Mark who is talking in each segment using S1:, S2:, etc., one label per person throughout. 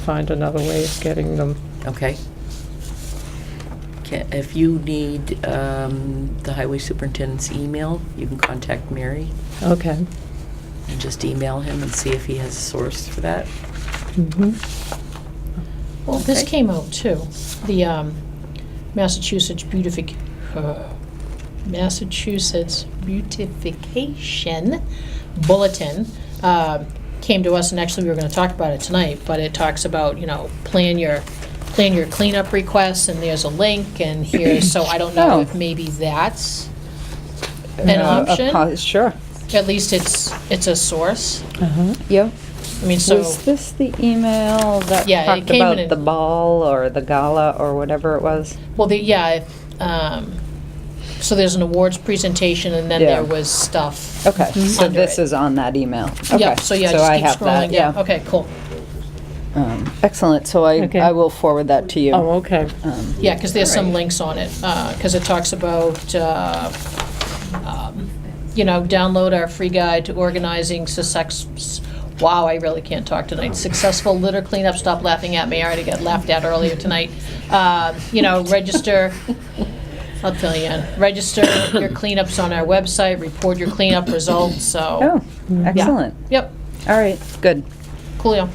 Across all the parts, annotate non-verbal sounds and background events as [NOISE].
S1: find another way of getting them.
S2: Okay. Ca- If you need um, the highway superintendent's email, you can contact Mary
S1: Okay.
S2: and just email him and see if he has a source for that.
S1: Mhm.
S3: Well, this
S2: Okay.
S3: came out too, the um, Massachusetts beautific, uh, Massachusetts beautification bulletin um, came to us, and actually, we were going to talk about it tonight, but it talks about, you know, plan your, plan your cleanup requests, and there's a link, and here's, so I don't know
S4: [CLEARS THROAT] Oh.
S3: if maybe that's an
S4: Uh, a
S3: option.
S4: po- Sure,
S3: At least it's, it's a source.
S1: Uh-huh.
S4: yep.
S3: I mean, so.
S4: Was this the email that
S3: Yeah, it
S4: talked
S3: came in
S4: about
S3: a-
S4: the ball or the gala or whatever it was?
S3: Well, the, yeah, if, um, so there's an awards presentation, and then there
S4: Yeah.
S3: was stuff.
S4: Okay, Mhm. so
S3: under
S4: this
S3: it.
S4: is on that email. Okay,
S3: Yep, so yeah, just
S4: I
S3: keep
S4: have that,
S3: scrolling down.
S4: yeah.
S3: Okay, cool.
S4: Um, Excellent, so I,
S1: Okay.
S4: I will forward that to you.
S1: Oh, okay.
S4: Um,
S3: Yeah, because there's some
S2: Alright.
S3: links on it, because it talks about, uh, um, you know, download our free guide to organizing success, wow, I really can't talk tonight, successful litter cleanup, stop laughing at me, I already got laughed at earlier tonight. Uh, You know, register, I'll tell you, register your cleanups on our website, report your cleanup results, so.
S4: Oh, excellent.
S3: Yep,
S4: All right, good.
S3: coolio.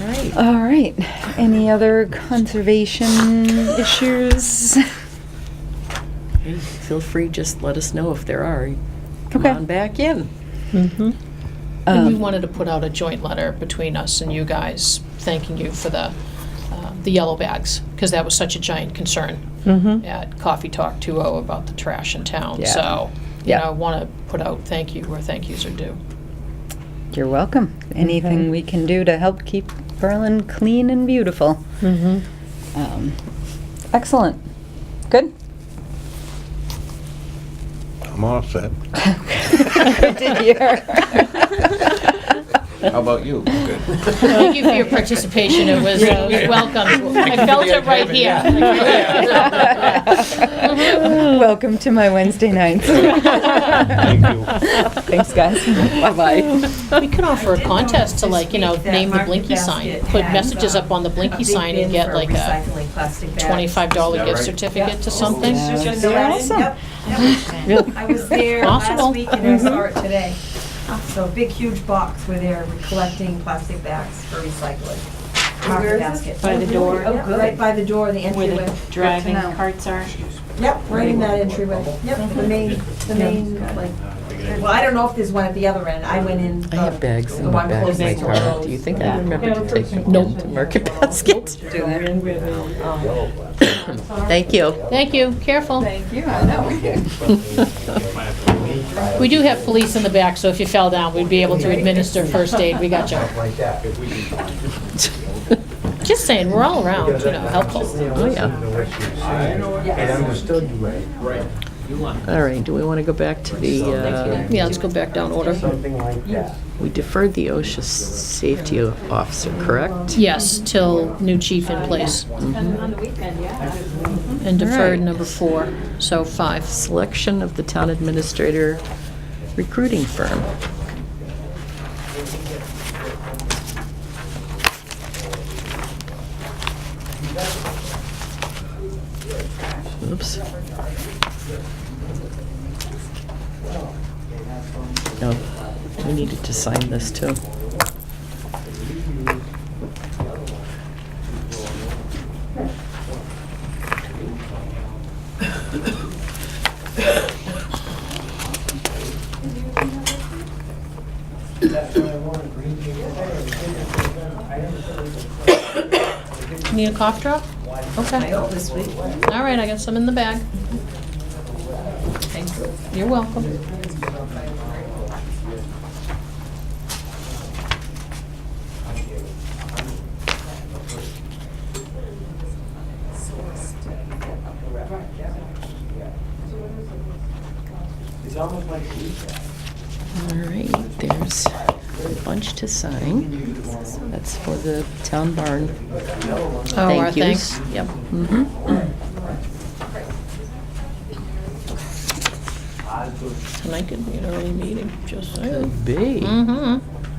S2: Right.
S4: All right, any other conservation issues?
S2: Feel free, just let us know if there are. Come
S4: Okay.
S2: on back in.
S1: Mhm.
S3: And we
S4: Um,
S3: wanted to put out a joint letter between us and you guys, thanking you for the, uh, the yellow bags, because that was such a giant concern
S1: Mhm.
S3: at Coffee Talk 2.0 about the trash in town.
S4: Yeah.
S3: So, you
S4: Yeah.
S3: know, I want to put out thank you where thank yous are due.
S4: You're welcome. Anything we can do to help keep Berlin clean and beautiful.
S1: Mhm.
S4: Um, Excellent, good. [LAUGHS]
S5: I'm all set.
S4: Good to hear.
S5: How about you? Good.
S3: Thank you for your participation. It was it was welcome. I felt it right here. [LAUGHS]
S4: Welcome to my Wednesday nights.
S5: Thank you.
S4: Thanks, guys. Bye-bye.
S3: We could offer a contest to like, you know,
S6: This week,
S3: name the
S6: that
S3: Blinky
S6: market
S3: sign,
S6: basket
S3: put
S6: has,
S3: messages
S6: um,
S3: up on the
S6: a
S3: Blinky
S6: big
S3: sign and
S6: bin
S3: get
S6: for
S3: like a
S6: recycling plastic bags.
S3: $25 gift
S5: right?
S3: certificate to
S6: Yeah.
S3: something.
S6: It's just
S4: That'd
S6: a
S4: be
S6: write-in.
S4: awesome.
S6: Yep, yep. Mm-hmm. I was [LAUGHS] there
S3: Possible.
S6: last week and I saw it today. So a big, huge box where they're collecting plastic bags for recycling. Market basket.
S7: By the door.
S6: Yep, Oh, Right by the door, the
S7: Where
S6: entryway.
S7: the driving
S6: Good to know.
S7: carts are.
S6: Yep, right in that entryway. Yep, the main, the main, like, well, I don't know if there's one at the other end. I went in.
S2: I have bags in
S6: the
S2: my
S6: one
S2: bag of my
S6: closest to
S2: car.
S6: Lowe's.
S2: Do you think I remember to take them down to Market Basket? Thank you.
S3: Thank you, careful. Thank you, I know. We do have police in the back, so if you fell down, we'd be able to administer first aid, we got you. Just saying, we're all around, Oh, you know, helpful.
S2: Oh, yeah.
S8: It understood you right. Right.
S2: [LAUGHS] All right, do we want to go back to the, uh,
S3: Yeah, let's go back down order.
S8: Something like that.
S2: we deferred the OSHA s- safety officer, correct?
S3: Yes, till new chief in place,
S7: On the weekend, yeah.
S6: Mm-hmm.
S3: and deferred
S2: Right.
S3: number four, so five.
S2: Selection of the town administrator recruiting firm. Oops. Oh, we needed to sign this too.
S3: Need a cough drop?
S6: I
S3: Okay, all
S6: hope this week.
S3: right, I got some in the bag. Thank you. You're welcome.
S8: It's almost like feedback.
S2: All right, there's a bunch to sign. That's for the town barn.
S3: Oh, our
S2: Thank yous.
S3: thanks.
S2: Yep. mhm.
S3: Tonight could be an early meeting, just saying.
S2: Be.
S3: Mm-hmm.
S2: Um,